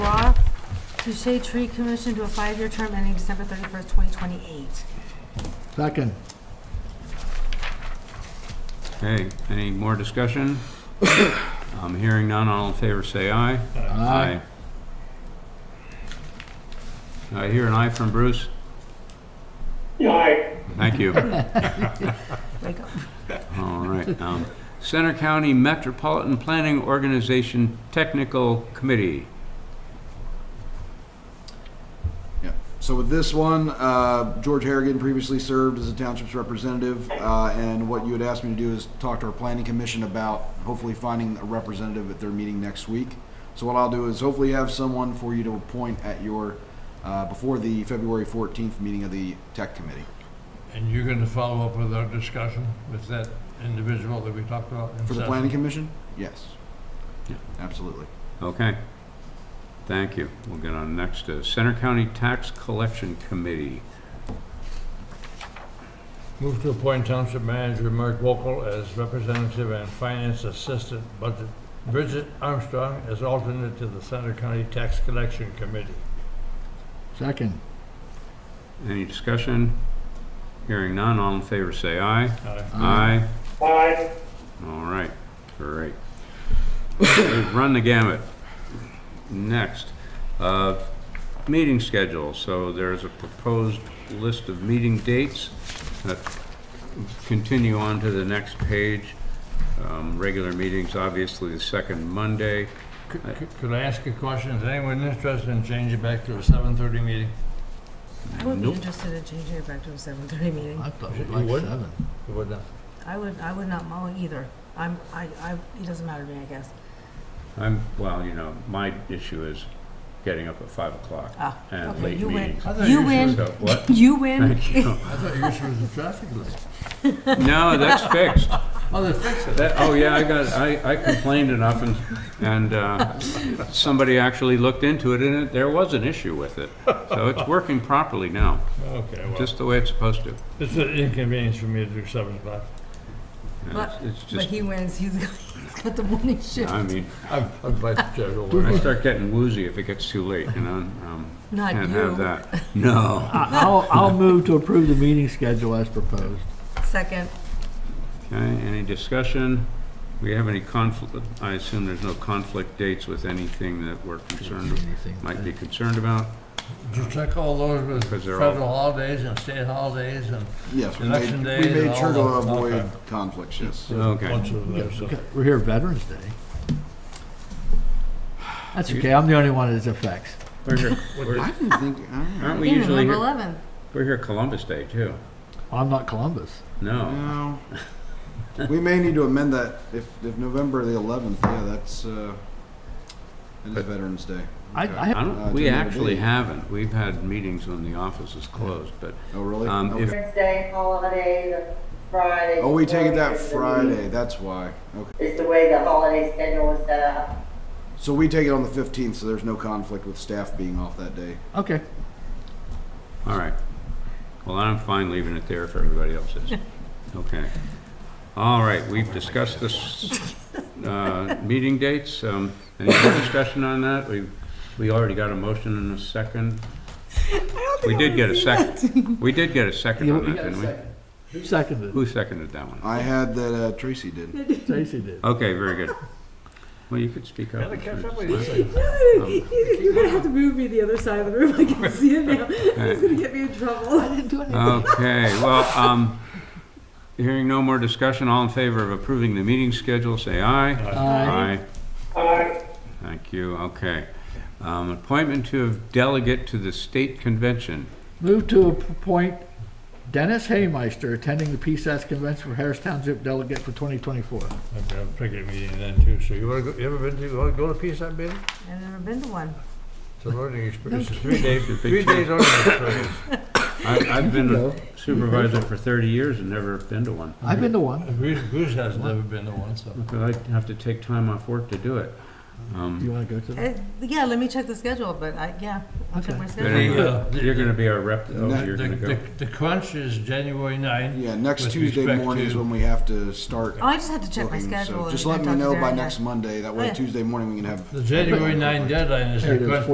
Touche Tree Commission to a five-year term ending December 31st, 2028. Second. Okay, any more discussion? Um, Hearing none, all in favor say aye. Aye. I hear an aye from Bruce. Aye. Thank you. Wake up. All right. um, Center County Metropolitan Planning Organization Technical Committee. So with this one, uh, George Harrigan previously served as a township's representative, uh, and what you had asked me to do is talk to our planning commission about hopefully finding a representative at their meeting next week. So what I'll do is hopefully have someone for you to appoint at your, uh, before the February fourteenth meeting of the tech committee. And you're gonna follow up with our discussion with that individual that we talked about? in For the session? planning commission? Yes. Yeah. Absolutely. Okay. Thank you. We'll get on next to Center County Tax Collection Committee. Move to appoint Township Manager Mark Wokel as representative and Finance Assistant Budget, Bridget Armstrong as alternate to the Center County Tax Collection Committee. Second. Any discussion? Hearing none, all in favor say aye. Aye. Aye. Aye. All right, great. We've run the gamut. Next, uh, meeting schedule, so there's a proposed list of meeting dates. that Continue on to the next page. Um, Regular meetings, obviously, the second Monday. Could- could- Could I ask a question? Is anyone interested in changing it back to a seven-thirty meeting? I would be Nope. interested in changing it back to a 7:30 meeting. I thought You it was like would? seven. You would not? I would, I would not mull either. I'm, I, I, it doesn't matter to me, I guess. I'm, well, you know, my issue is getting up at 5 o'clock Ah, and okay, late you win. meetings. I thought You your win. issue- So, what? You win. Thank you. I thought your issue was the traffic light. No, that's fixed. Oh, they fixed it. That, oh, yeah, I got, I, I complained enough and, and, uh, somebody actually looked into it and it- there was an issue with it. So it's working properly now, Okay, well, just the way it's supposed to. it's an inconvenience for me to do seven o'clock. And But- it's- It's But just, he wins, he's got, he's got the morning shift. I mean, I'm, I'm vice chair. don't worry. I start getting woozy if it gets too late, you know, um, Not can't have you. that. No. I- I'll, I'll move to approve the meeting schedule as proposed. Second, Okay, any discussion? We have any conflict, I assume there's no conflict dates with anything that we're concerned, might be concerned about? Did you check all those with 'Cause they're all- federal holidays and state holidays and Yes, we made, Election we days and made sure to all that, okay. avoid conflicts, yes. Okay. bunch of those? so- We're here Veterans Day. That's okay, I'm the only one that affects. We're here, I we're- didn't think, I don't know. aren't we meeting usually, number here- 11. we're here Columbus Day too? I'm not Columbus. No. No. We may need to amend that if, if November the eleventh, yeah, that's, uh, that is Veterans Day. I, Okay. I I have, Uh, don't, we it's another actually day. haven't. We've had meetings when the office is closed, but, Oh, really? um, if, Okay. Wednesday holiday, the Friday. Oh, we take it that before is the Friday, that's why. Okay. week- Is the way the holiday schedule was set up. So we take it on the fifteenth, so there's no conflict with staff being off that day. okay, all right. Well, I'm fine leaving it there if everybody else is. Okay. All right, we've discussed this, uh, meeting dates. Um, any more discussion on that? We, we already got a motion and a second. We did get a second. We did get a second Yeah, on we that, got a didn't we? who seconded Who seconded that one? I had that uh, Tracy did. it? Stacy did. Okay, very good. Well, you could speak up. Um, You're gonna have to move me the other side of the room. I can see it now. It's gonna get me in trouble. I didn't do anything. Okay, well, um, hearing no more discussion, all in favor of approving the meeting schedule, say aye. Aye. Aye. Thank you, okay. Um, appointment to a delegate to the state convention. Move to appoint Dennis Haymeister, attending the PSAS Convention for Harris Township Delegate for 2024. Okay, I'll pick a meeting then too. So you wanna go, you ever been to, you wanna go to PSAT meeting? I've never been to one. It's a learning experience. It's a three day, three days learning experience. I, I've been a supervisor for thirty years and never been to one. I've been to one. Bruce, Bruce has never been to one, so. But I have to take time off work to do it. Um, You want to go to that? Eh, Yeah, let me check the schedule, but I, yeah, I'll check Okay. my but schedule. anyway, You're gonna be our rep, oh, The, you're gonna go. the, the crunch is January ninth. Yeah, next With Tuesday respect morning is to- when we have to start Oh, I just had to check my looking, schedule. so and just I let me talked to know by Darren. next Monday, that Oh, way yeah. Tuesday morning we can have. The January ninth deadline is There the it is, crunch